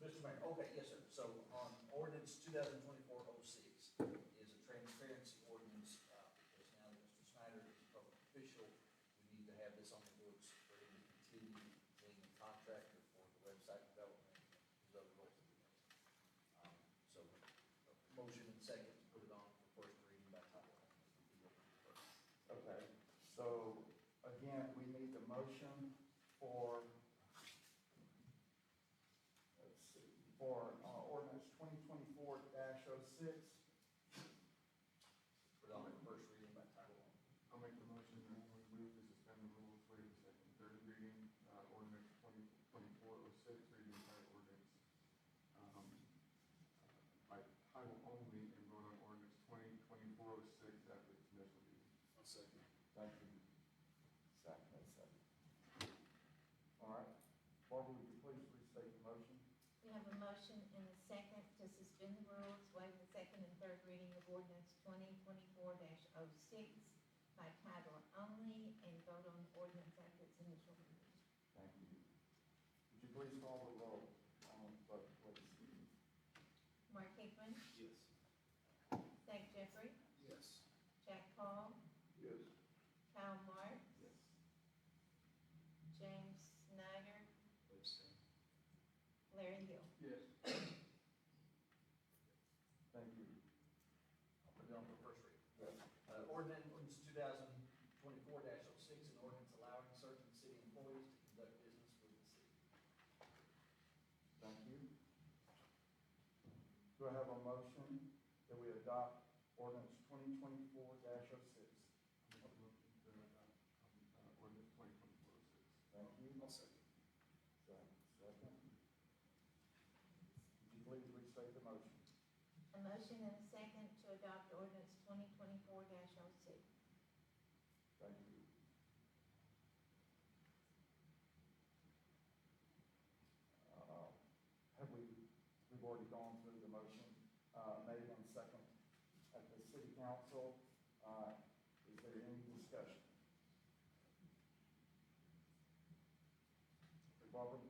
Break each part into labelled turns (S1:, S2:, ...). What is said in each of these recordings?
S1: Mr. Mayor, okay, yes, sir. So on ordinance two thousand twenty-four oh six is a transparency ordinance, uh, because now that Mr. Snyder is a public official, we need to have this on the books for him to continue being a contractor for the website development, his other roles that he does. Um, So, a motion and second to put it on for first reading by title only.
S2: Okay, so again, we need the motion for, let's see, for uh, ordinance twenty twenty-four oh 6
S1: Put it on for first reading by title only.
S3: I'll make the motion that we move to suspend the rules, waive the second, and third reading, uh, ordinance twenty, twenty-four oh six, reading by ordinance. um, uh, By title only and vote on ordinance twenty, twenty-four oh six after its initial reading.
S4: I'll second.
S2: Thank you. Second, that's second. All right, Barbara, would you please restate the motion?
S5: We have a motion and a second to suspend the rules, waive the second and third reading of ordinance twenty twenty-four 6 by title only and vote on the ordinance after its initial reading.
S2: Thank you. Would you please call the roll on the vote, please?
S5: Mark Hickman,
S4: Yes.
S5: Zach Jeffrey,
S4: Yes.
S5: Jack Paul,
S3: Yes.
S5: Kyle Mark,
S2: Yes.
S5: James Snyder,
S4: Abstain.
S5: Larry Hill.
S3: Yes.
S2: Thank you.
S1: I'll put it on for first reading.
S2: Yes.
S1: Uh, ordinance two thousand twenty-four 6 an ordinance allowing certain city employees to conduct business with the city.
S2: Thank you. Do I have a motion that we adopt ordinance twenty twenty-four oh 6
S3: I'll make the motion to adopt, um, uh, ordinance twenty, twenty-four oh six.
S2: Thank you.
S4: I'll second.
S2: Second. Second. Would you please restate the motion?
S5: A motion and a second to adopt ordinance twenty twenty-four oh 6
S2: Thank you. Uh, Have we, we've already gone through the motion, uh, made on second at the city council. Uh, is there any discussion? Barbara?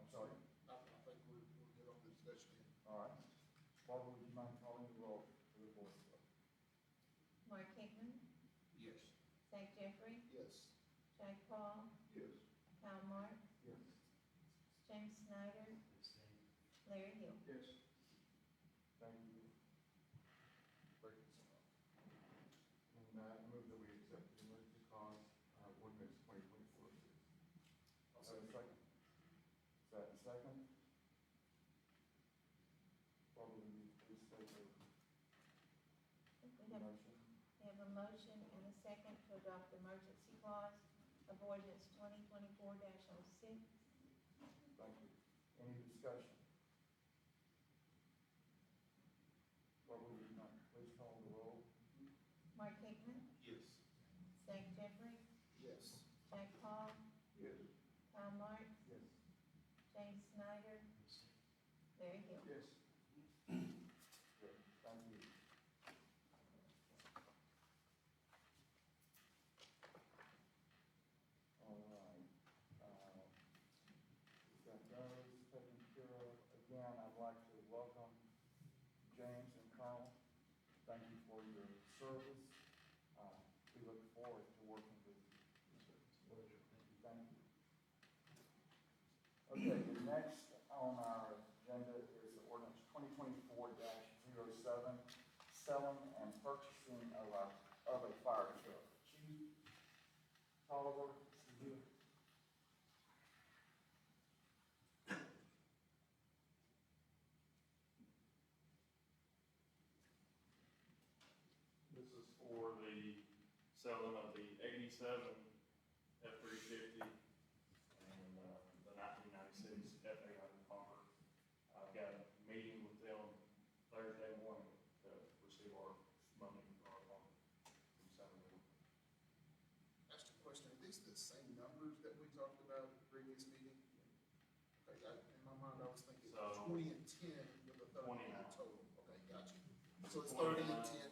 S2: I'm sorry,
S4: I, I think we're, we're good on the discussion.
S2: all right. Barbara, would you mind calling the roll for the voice vote?
S5: Mark Hickman,
S4: Yes.
S5: Zach Jeffrey,
S4: Yes.
S5: Jack Paul,
S3: Yes.
S5: Kyle Mark,
S2: Yes.
S5: James Snyder,
S1: Abstain.
S5: Larry Hill.
S3: Yes.
S2: Thank you.
S3: And, uh, I move that we accept the emergency clause, uh, ordinance twenty, twenty-four oh six.
S4: I'll
S2: Is that a
S4: second.
S2: second? Is that a second? Barbara, will you please state the
S5: We have,
S2: motion?
S5: we have a motion and a second to adopt the emergency clause of ordinance twenty twenty-four oh 6
S2: Thank you. Any discussion? Barbara, will you not please call the roll?
S5: Mark Hickman,
S4: Yes.
S5: Zach Jeffrey,
S4: Yes.
S5: Jack Paul,
S3: Yes.
S5: Kyle Mark,
S2: Yes.
S5: James Snyder, Larry Hill.
S3: Yes.
S2: Good, thank you. All right, uh, we've got those taken care of. Again, I'd like to welcome James and Carl. Thank you for your service. Uh, we look forward to working with you. Thank you. Okay, the next on our agenda is ordinance twenty twenty-four 7 selling and purchasing of a, of a fire truck. Chief Oliver, do you?
S6: This is for the selling of the eighty-seven F three fifty and uh, the nineteen ninety-six F eight hundred pumper. I've got a meeting with them Thursday morning to receive our money for our pumper from Somerville.
S4: Asked a question, are these the same numbers that we talked about at the previous meeting? Okay, I, in my mind, I was thinking
S6: So-
S4: twenty and ten with a thirty
S6: 29.
S4: total. Okay, gotcha. So it's thirty
S6: 29.
S4: and ten